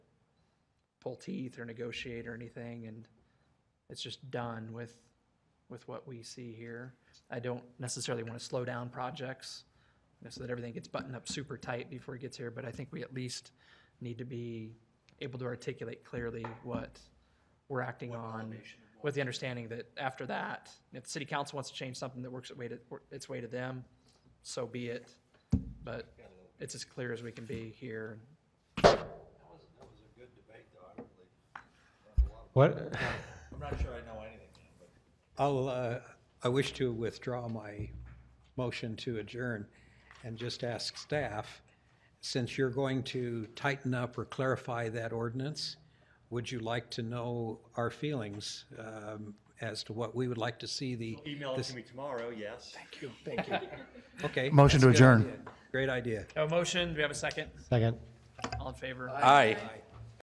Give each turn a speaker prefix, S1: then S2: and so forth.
S1: pull teeth or negotiate or anything, and it's just done with, with what we see here. I don't necessarily want to slow down projects, you know, so that everything gets buttoned up super tight before it gets here, but I think we at least need to be able to articulate clearly what we're acting on, with the understanding that after that, if the city council wants to change something that works its way to, its way to them, so be it, but it's as clear as we can be here.
S2: That was, that was a good debate, though, I really,
S3: What,
S2: I'm not sure I know anything, but.
S4: I'll, uh, I wish to withdraw my motion to adjourn and just ask staff, since you're going to tighten up or clarify that ordinance, would you like to know our feelings um, as to what we would like to see the?
S2: Email it
S4: this-
S2: to me tomorrow, yes.
S4: Okay.
S5: Motion to
S4: that's a good
S5: adjourn.
S4: idea. Great idea.
S1: A motion, do we have a second?
S3: second?
S1: All in favor?
S4: Aye.